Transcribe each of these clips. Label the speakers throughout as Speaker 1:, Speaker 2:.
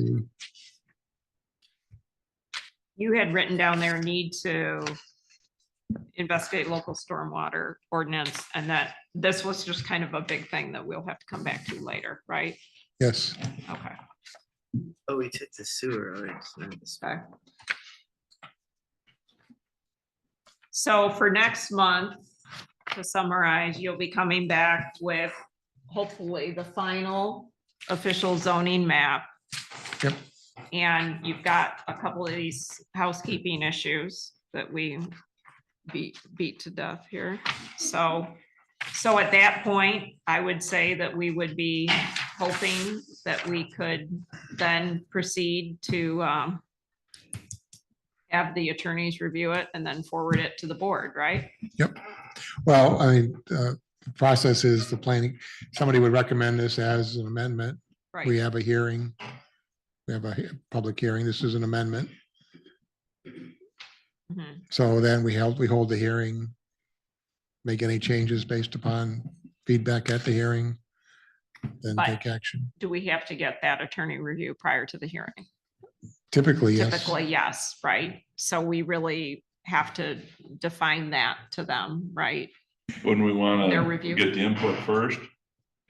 Speaker 1: see.
Speaker 2: You had written down there need to investigate local stormwater ordinance and that this was just kind of a big thing that we'll have to come back to later, right?
Speaker 1: Yes,
Speaker 2: Okay,
Speaker 3: Oh, we took the sewer. already, so not the sewer.
Speaker 2: okay. So for next month, to summarize, you'll be coming back with hopefully the final official zoning map.
Speaker 1: Yep.
Speaker 2: And you've got a couple of these housekeeping issues that we beat, beat to death here. So, so at that point, I would say that we would be hoping that we could then proceed to um, have the attorneys review it and then forward it to the board, right?
Speaker 1: well, I mean, uh, the process is the planning, somebody would recommend this as an amendment. We
Speaker 2: Right,
Speaker 1: have a hearing. We have a he- public hearing. This is an amendment.
Speaker 2: Mhm.
Speaker 1: So then we held, we hold the hearing. Make any changes based upon feedback at the hearing. Then
Speaker 2: But-
Speaker 1: take action.
Speaker 2: Do we have to get that attorney review prior to the hearing?
Speaker 1: Typically, yes.
Speaker 2: Typically, yes, right? So we really have to define that to them, right?
Speaker 4: Wouldn't we want
Speaker 2: Their
Speaker 4: to
Speaker 2: review.
Speaker 4: get the input first?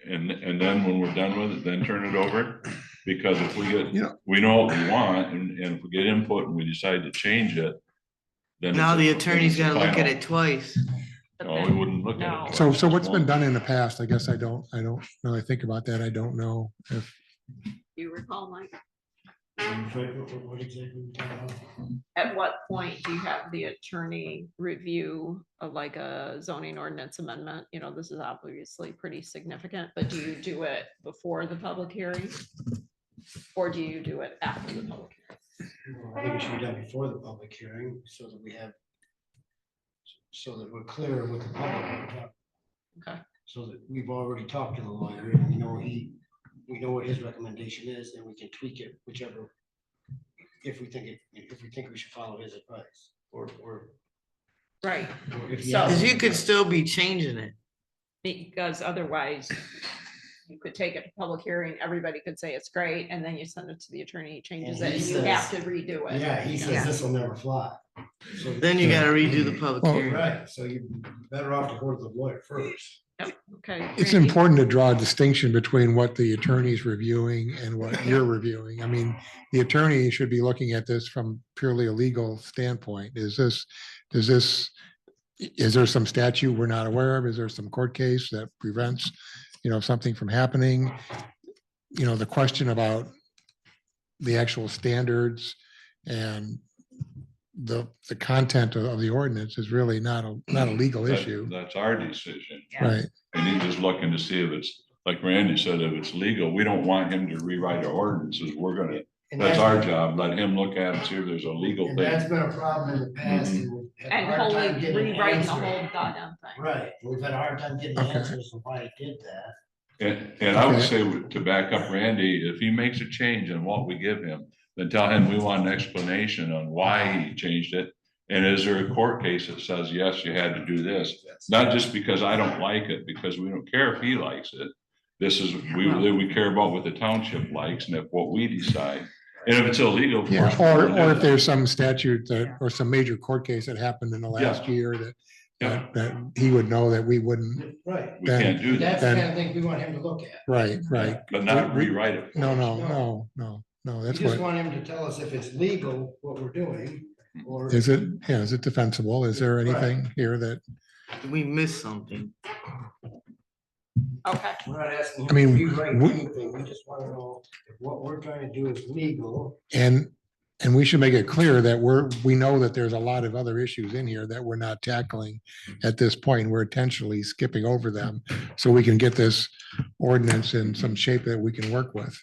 Speaker 4: And, and then when we're done with it, then turn it over? Because if we
Speaker 1: Yeah.
Speaker 4: get, we know what we want and, and if we get input and we decide to change it, then.
Speaker 3: Now
Speaker 4: it's-
Speaker 3: the
Speaker 4: then
Speaker 3: attorney's
Speaker 4: it's
Speaker 3: gotta look at
Speaker 4: final.
Speaker 3: it twice.
Speaker 2: But
Speaker 4: No, we
Speaker 2: then-
Speaker 4: wouldn't look at it.
Speaker 1: So, so what's been done in the past? I guess I don't, I don't really think about that. I don't know if,
Speaker 2: You recall, Mike,
Speaker 5: What exactly we talking about?
Speaker 2: at what point do you have the attorney review of like a zoning ordinance amendment? You know, this is obviously pretty significant, but do you do it before the public hearing? Or do you do it after the public? hearing?
Speaker 5: Well, I think it should be done before the public hearing, so that we have, so that we're clear with the public.
Speaker 2: Okay.
Speaker 5: So that we've already talked to the lawyer, and we know he, we know what his recommendation is, and we can tweak it whichever, if we think, it if we think we should follow his advice, or, or.
Speaker 2: Right.
Speaker 5: or if he
Speaker 2: So-
Speaker 5: has-
Speaker 3: Cause you could still be changing it.
Speaker 2: Because otherwise, you could take it to public hearing, everybody could say it's great, and then you send it to the attorney, he changes
Speaker 5: And
Speaker 2: it,
Speaker 5: he
Speaker 2: and you have to
Speaker 5: says-
Speaker 2: redo it.
Speaker 5: Yeah, he
Speaker 3: Yeah.
Speaker 5: says this will never fly. So-
Speaker 3: Then you gotta redo the public
Speaker 1: Well,
Speaker 3: hearing.
Speaker 5: Right, so you're better off to go to the lawyer first.
Speaker 2: Okay.
Speaker 1: it's
Speaker 2: Randy?
Speaker 1: important to draw a distinction between what the attorney's reviewing and what you're reviewing. I mean, the attorney should be looking at this from purely a legal standpoint. Is this, does this, is there some statute we're not aware of? Is there some court case that prevents, you know, something from happening? You know, the question about the actual standards and the, the content of- of the ordinance is really not a, not a legal
Speaker 4: That-
Speaker 1: issue,
Speaker 4: That's our decision.
Speaker 2: Yeah.
Speaker 1: right?
Speaker 4: And he's just looking to see if it's, like Randy said, if it's legal, we don't want him to rewrite our ordinances. We're gonna,
Speaker 5: And
Speaker 4: that's our job. Let him look at it, see if there's a legal
Speaker 5: And
Speaker 4: thing.
Speaker 5: that's been a problem in the past.
Speaker 4: Mhm.
Speaker 5: and we've had a
Speaker 2: And
Speaker 5: hard
Speaker 2: wholly
Speaker 5: time getting an
Speaker 2: rewriting the
Speaker 5: answer.
Speaker 2: whole goddamn thing.
Speaker 5: Right, we've had a hard time getting
Speaker 1: Okay.
Speaker 5: answers on why it did that.
Speaker 4: And, and I would
Speaker 1: Okay.
Speaker 4: say to back up Randy, if he makes a change in what we give him, then tell him we want an explanation on why he changed it. And is there a court case that says, yes, you had to do this? Not just because I don't like it, because we don't care if he likes it. This is, we, we care about what the township likes and if what we decide. And if it's illegal. of
Speaker 1: Yeah,
Speaker 4: course, we're
Speaker 1: or,
Speaker 4: gonna do
Speaker 1: or if
Speaker 4: that.
Speaker 1: there's some statute that, or some major court case that happened in the last year that,
Speaker 4: Yeah,
Speaker 1: that, that he would know that we wouldn't,
Speaker 5: Right,
Speaker 4: We can't do
Speaker 5: that's
Speaker 4: that,
Speaker 5: the kind of thing we want him to look at.
Speaker 1: right, right.
Speaker 4: but not rewrite it.
Speaker 1: No, no, no, no, no,
Speaker 5: We
Speaker 1: that's
Speaker 5: just
Speaker 1: what,
Speaker 5: want him to tell us if it's legal, what we're doing, or.
Speaker 1: is it, yeah, is it defensible? Is there anything here that,
Speaker 3: We missed something.
Speaker 2: Okay,
Speaker 5: We're not asking
Speaker 1: I
Speaker 5: him to
Speaker 1: mean,
Speaker 5: rewrite
Speaker 1: we-
Speaker 5: anything, we just want to know if what we're trying to do is legal.
Speaker 1: and, and we should make it clear that we're, we know that there's a lot of other issues in here that we're not tackling at this point. We're intentionally skipping over them so we can get this ordinance in some shape that we can work with.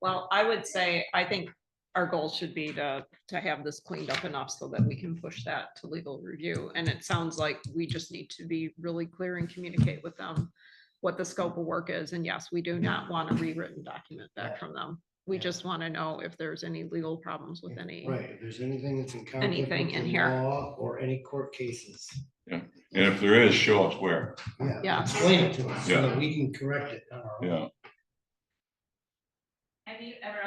Speaker 2: well, I would say, I think our goal should be to, to have this cleaned up enough so that we can push that to legal review. And it sounds like we just need to be really clear and communicate with them what the scope of work is. And yes, we do not want a rewritten document back from them. We
Speaker 5: Yeah.
Speaker 2: just want to know if there's any legal problems with any.
Speaker 5: Right, if there's anything that's in conflict with
Speaker 2: Anything in
Speaker 5: the
Speaker 2: here.
Speaker 5: law or any court cases.
Speaker 4: And if there is, show us where,
Speaker 5: Yeah.
Speaker 2: Yeah.
Speaker 5: Explain it to us so
Speaker 4: Yeah.
Speaker 5: that we can correct it on our own.
Speaker 4: yeah.